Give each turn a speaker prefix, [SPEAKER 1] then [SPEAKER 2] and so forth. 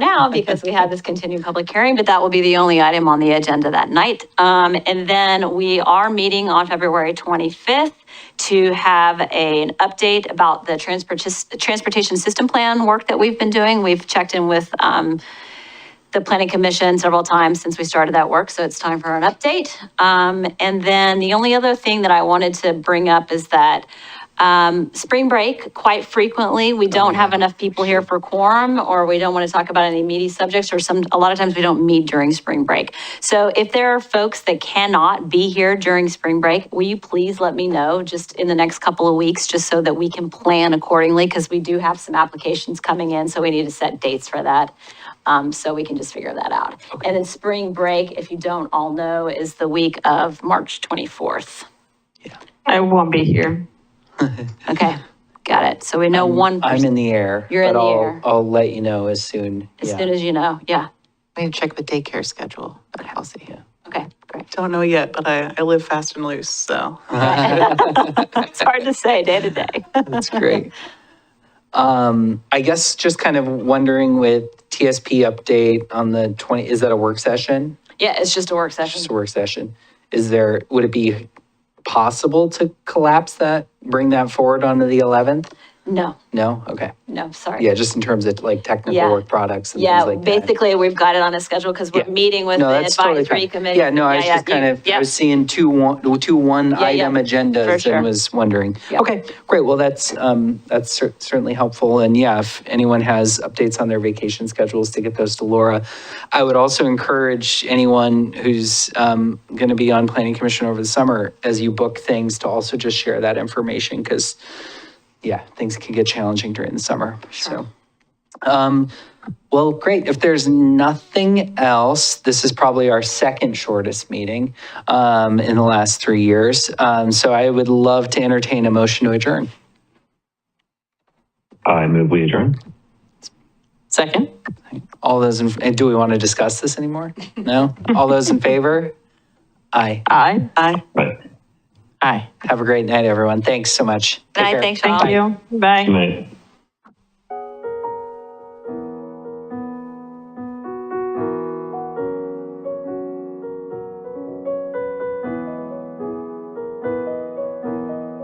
[SPEAKER 1] now because we had this continued public hearing, but that will be the only item on the agenda that night. Um, and then we are meeting on February 25th to have an update about the transport, transportation system plan work that we've been doing. We've checked in with, um, the planning commission several times since we started that work, so it's time for an update. Um, and then the only other thing that I wanted to bring up is that um, spring break, quite frequently, we don't have enough people here for quorum, or we don't want to talk about any meaty subjects, or some, a lot of times we don't meet during spring break. So if there are folks that cannot be here during spring break, will you please let me know just in the next couple of weeks, just so that we can plan accordingly, because we do have some applications coming in, so we need to set dates for that. Um, so we can just figure that out. And then spring break, if you don't all know, is the week of March 24th.
[SPEAKER 2] I won't be here.
[SPEAKER 1] Okay, got it. So we know one
[SPEAKER 3] I'm
[SPEAKER 1] person,
[SPEAKER 3] in the air.
[SPEAKER 1] You're in
[SPEAKER 3] but
[SPEAKER 1] the
[SPEAKER 3] I'll-
[SPEAKER 1] air.
[SPEAKER 3] I'll let you know as soon.
[SPEAKER 1] as
[SPEAKER 3] yeah.
[SPEAKER 1] soon as you know. Yeah,
[SPEAKER 4] I need to check the daycare schedule, but I'll see.
[SPEAKER 1] okay, great.
[SPEAKER 5] Don't know yet, but I, I live fast and loose, so.
[SPEAKER 1] It's hard to say day to day.
[SPEAKER 3] That's great. Um, I guess just kind of wondering with TSP update on the 20, is that a work session?
[SPEAKER 1] Yeah, it's just a work
[SPEAKER 3] Just
[SPEAKER 1] session.
[SPEAKER 3] a work session. Is there, would it be possible to collapse that, bring that forward onto the 11th?
[SPEAKER 1] No,
[SPEAKER 3] No? Okay.
[SPEAKER 1] no, sorry.
[SPEAKER 3] Yeah, just in terms of like
[SPEAKER 1] Yeah.
[SPEAKER 3] technical work products and things
[SPEAKER 1] Yeah,
[SPEAKER 3] like that.
[SPEAKER 1] basically, we've got it on a schedule because we're
[SPEAKER 3] Yeah.
[SPEAKER 1] meeting with
[SPEAKER 3] No,
[SPEAKER 1] the
[SPEAKER 3] that's totally
[SPEAKER 1] advisory
[SPEAKER 3] fine.
[SPEAKER 1] committee.
[SPEAKER 3] Yeah, no, I was just
[SPEAKER 1] you-
[SPEAKER 3] kind of, I
[SPEAKER 1] yeah.
[SPEAKER 3] was seeing two one, two one
[SPEAKER 1] Yeah, yeah,
[SPEAKER 3] item
[SPEAKER 1] for
[SPEAKER 3] agendas
[SPEAKER 1] sure.
[SPEAKER 3] and was wondering.
[SPEAKER 1] Yeah.
[SPEAKER 3] Okay, great. Well, that's, um, that's cer- certainly helpful. And yeah, if anyone has updates on their vacation schedules to get those to Laura. I would also encourage anyone who's, um, going to be on planning commission over the summer, as you book things, to also just share that information because, yeah, things can get challenging during the summer. So. Well, great. If there's nothing else, this is probably our second shortest meeting um, in the last three years. Um, so I would love to entertain a motion to adjourn.
[SPEAKER 6] I move we adjourn.
[SPEAKER 4] Second?
[SPEAKER 3] All those, in, and do we want to discuss this anymore? No? All those in favor? Aye.
[SPEAKER 4] Aye.
[SPEAKER 6] Right.
[SPEAKER 4] Aye.
[SPEAKER 3] Have a great night, everyone. Thanks so much. Take
[SPEAKER 1] Good night,
[SPEAKER 3] care.
[SPEAKER 1] thanks, y'all.
[SPEAKER 2] Thank you. Bye.
[SPEAKER 6] Good night.